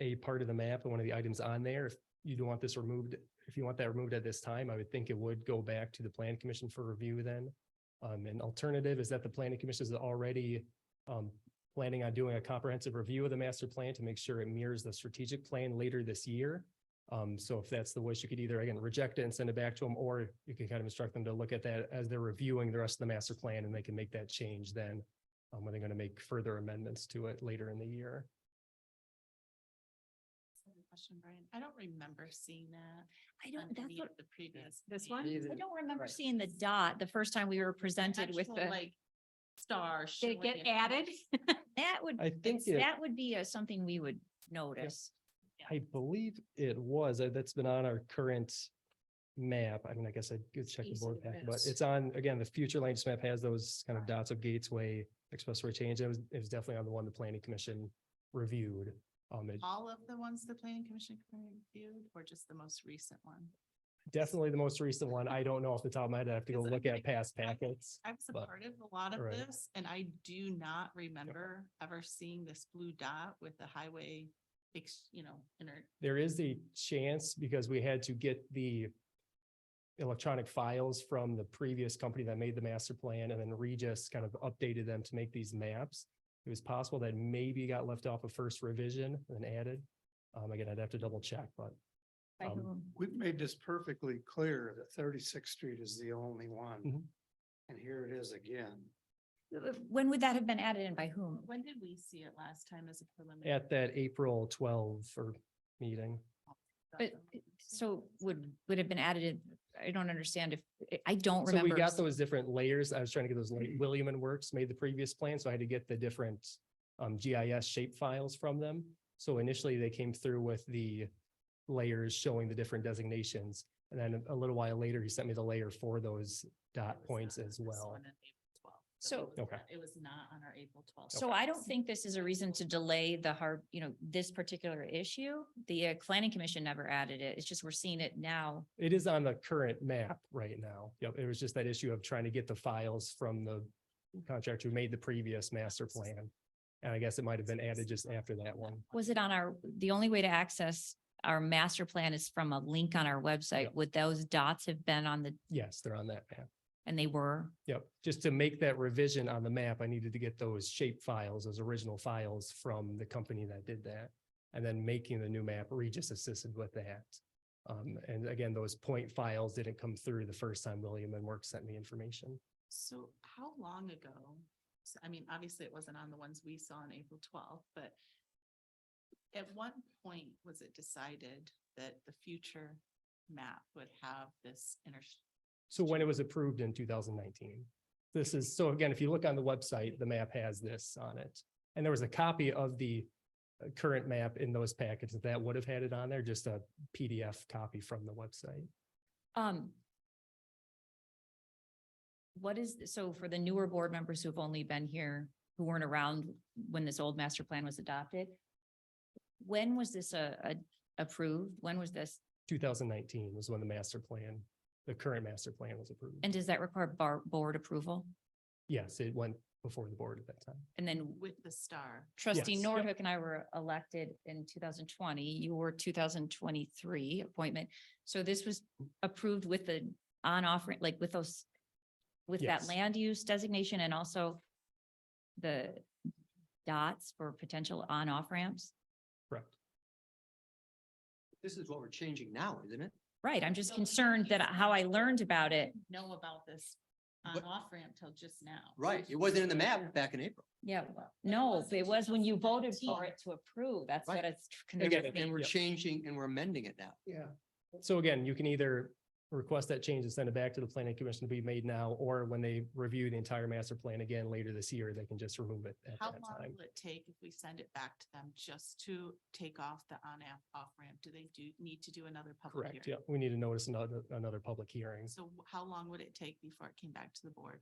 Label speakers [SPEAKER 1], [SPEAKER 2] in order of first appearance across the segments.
[SPEAKER 1] a part of the map and one of the items on there, if you do want this removed, if you want that removed at this time, I would think it would go back to the plan commission for review then. Um, an alternative is that the planning commission is already, um, planning on doing a comprehensive review of the master plan to make sure it mirrors the strategic plan later this year. Um, so if that's the wish, you could either again reject it and send it back to them, or you can kind of instruct them to look at that as they're reviewing the rest of the master plan and they can make that change then. Um, when they're going to make further amendments to it later in the year.
[SPEAKER 2] Good Question, Brian. I don't remember seeing that
[SPEAKER 3] I
[SPEAKER 2] on
[SPEAKER 3] don't, that's
[SPEAKER 2] any of
[SPEAKER 3] what,
[SPEAKER 2] the previous.
[SPEAKER 4] This
[SPEAKER 2] plans.
[SPEAKER 4] one?
[SPEAKER 3] I don't remember seeing the dot the first time we were presented with
[SPEAKER 2] Actual,
[SPEAKER 3] the,
[SPEAKER 2] Like star.
[SPEAKER 4] Did it
[SPEAKER 2] showing
[SPEAKER 4] get added?
[SPEAKER 3] that would,
[SPEAKER 1] I think it,
[SPEAKER 3] that would be uh, something we would notice.
[SPEAKER 1] I believe it was, uh, that's been on our current map. I mean, I guess I could check the
[SPEAKER 3] Piece
[SPEAKER 1] board
[SPEAKER 3] of
[SPEAKER 1] pack, but
[SPEAKER 3] this.
[SPEAKER 1] it's on, again, the future land use map has those kind of dots of gateway expressway change. It was, it was definitely on the one the planning commission reviewed. Um, it
[SPEAKER 2] All of the ones the planning commission reviewed or just the most recent one?
[SPEAKER 1] definitely the most recent one. I don't know off the top of my head. I have to go
[SPEAKER 2] Because I
[SPEAKER 1] look at
[SPEAKER 2] think-
[SPEAKER 1] past packets.
[SPEAKER 2] I was a
[SPEAKER 1] But-
[SPEAKER 2] part of a lot of
[SPEAKER 1] Right.
[SPEAKER 2] this and I do not remember ever seeing this blue dot with the highway, ex- you know, inter,
[SPEAKER 1] There is a chance because we had to get the electronic files from the previous company that made the master plan and then Regis kind of updated them to make these maps. It was possible that maybe got left off a first revision and added. Um, again, I'd have to double check, but
[SPEAKER 3] By
[SPEAKER 1] Um,
[SPEAKER 3] whom?
[SPEAKER 5] We've made this perfectly clear that Thirty-Sixth Street is the only one.
[SPEAKER 1] Mhm.
[SPEAKER 5] And here it is again.
[SPEAKER 3] Uh, When would that have been added and by whom?
[SPEAKER 2] when did we see it last time as a preliminary?
[SPEAKER 1] at that April twelve or meeting.
[SPEAKER 3] But,
[SPEAKER 2] uh,
[SPEAKER 3] so would, would have been added, in- I don't understand if, I- I don't
[SPEAKER 1] So we
[SPEAKER 3] remember.
[SPEAKER 1] got those different layers. I was trying to get those, like, William and Works made the previous plan, so I had to get the different um, GIS shape files from them. So initially, they came through with the layers showing the different designations. And then a little while later, he sent me the layer for those
[SPEAKER 2] It
[SPEAKER 1] dot
[SPEAKER 2] was
[SPEAKER 1] points
[SPEAKER 2] not on
[SPEAKER 1] as
[SPEAKER 2] this
[SPEAKER 1] well.
[SPEAKER 2] one on April 12th,
[SPEAKER 3] So-
[SPEAKER 2] it was
[SPEAKER 1] Okay.
[SPEAKER 2] not- It was not on our April twelfth.
[SPEAKER 3] So I don't think this is a reason to delay the hard, you know, this particular issue. The uh, planning commission never added it. It's just we're seeing it now.
[SPEAKER 1] It is on the current map right now. Yep, it was just that issue of trying to get the files from the contractor who made the previous master plan. And I guess it might have been added just after that one.
[SPEAKER 3] Was it on our, the only way to access our master plan is from a link on our website?
[SPEAKER 1] Yep.
[SPEAKER 3] Would those dots have been on the,
[SPEAKER 1] Yes, they're on that map.
[SPEAKER 3] and they were?
[SPEAKER 1] Yep, just to make that revision on the map, I needed to get those shape files, those original files from the company that did that. And then making the new map, Regis assisted with that. Um, and again, those point files didn't come through the first time William and Work sent me information.
[SPEAKER 2] So how long ago? so- I mean, obviously it wasn't on the ones we saw on April twelfth, but at what point was it decided that the future map would have this inter?
[SPEAKER 1] So when it was approved in two thousand nineteen. This is, so again, if you look on the website, the map has this on it. And there was a copy of the uh, current map in those packets that would have had it on there, just a PDF copy from the website.
[SPEAKER 3] Um. What is, so for the newer board members who've only been here, who weren't around when this old master plan was adopted? When was this uh uh, approved? When was this?
[SPEAKER 1] two thousand nineteen was when the master plan, the current master plan was approved.
[SPEAKER 3] And does that require bar, board approval?
[SPEAKER 1] Yes, it went before the board at that time.
[SPEAKER 3] And then
[SPEAKER 2] With the star.
[SPEAKER 3] trustee
[SPEAKER 1] Yes.
[SPEAKER 3] Nordhook and I were elected in two thousand twenty, you were two thousand twenty-three appointment. So this was approved with the on-off, ra- like with those, with that
[SPEAKER 1] Yes.
[SPEAKER 3] land use designation and also the dots for potential on-off ramps?
[SPEAKER 1] Correct.
[SPEAKER 5] This is what we're changing now, isn't it?
[SPEAKER 3] Right, I'm
[SPEAKER 2] So
[SPEAKER 3] just
[SPEAKER 2] we
[SPEAKER 3] concerned that
[SPEAKER 2] used-
[SPEAKER 3] how I learned about it.
[SPEAKER 2] Know about this on
[SPEAKER 5] But-
[SPEAKER 2] off ramp till just now.
[SPEAKER 5] Right, it wasn't in the map back in April.
[SPEAKER 3] Yeah,
[SPEAKER 2] But it
[SPEAKER 3] no,
[SPEAKER 2] wasn't
[SPEAKER 3] it was when you voted
[SPEAKER 2] 2019.
[SPEAKER 3] for it to approve. That's what
[SPEAKER 5] Right.
[SPEAKER 3] it's.
[SPEAKER 1] Again,
[SPEAKER 3] confusing.
[SPEAKER 5] And we're
[SPEAKER 1] Yeah.
[SPEAKER 5] changing and we're amending it now.
[SPEAKER 1] Yeah. So again, you can either request that change and send it back to the planning commission to be made now, or when they review the entire master plan again later this year, they can just remove it at
[SPEAKER 2] How
[SPEAKER 1] that
[SPEAKER 2] long
[SPEAKER 1] time.
[SPEAKER 2] will it take if we send it back to them just to take off the on-ramp, off-ramp? Do they do, need to do another public
[SPEAKER 1] Correct,
[SPEAKER 2] hearing?
[SPEAKER 1] yeah. We need to notice another, another public hearing.
[SPEAKER 2] So wh- how long would it take before it came back to the board?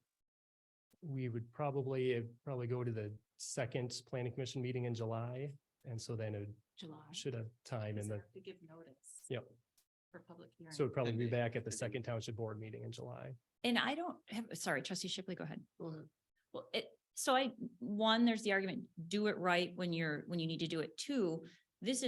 [SPEAKER 1] We would probably, it'd probably go to the second planning commission meeting in July. And so then it
[SPEAKER 2] July?
[SPEAKER 1] should have time
[SPEAKER 2] Because
[SPEAKER 1] in
[SPEAKER 2] they
[SPEAKER 1] the,
[SPEAKER 2] have To give notice.
[SPEAKER 1] Yep.
[SPEAKER 2] For public hearing.
[SPEAKER 1] so it'd probably be
[SPEAKER 5] Indeed.
[SPEAKER 1] back at the
[SPEAKER 5] Indeed.
[SPEAKER 1] second township board meeting in July.
[SPEAKER 3] And I don't have, sorry, trustee Shipley, go ahead.
[SPEAKER 5] Go ahead.
[SPEAKER 3] Well, it, so I, one, there's the argument, do it right when you're, when you need to do it. Two, this is.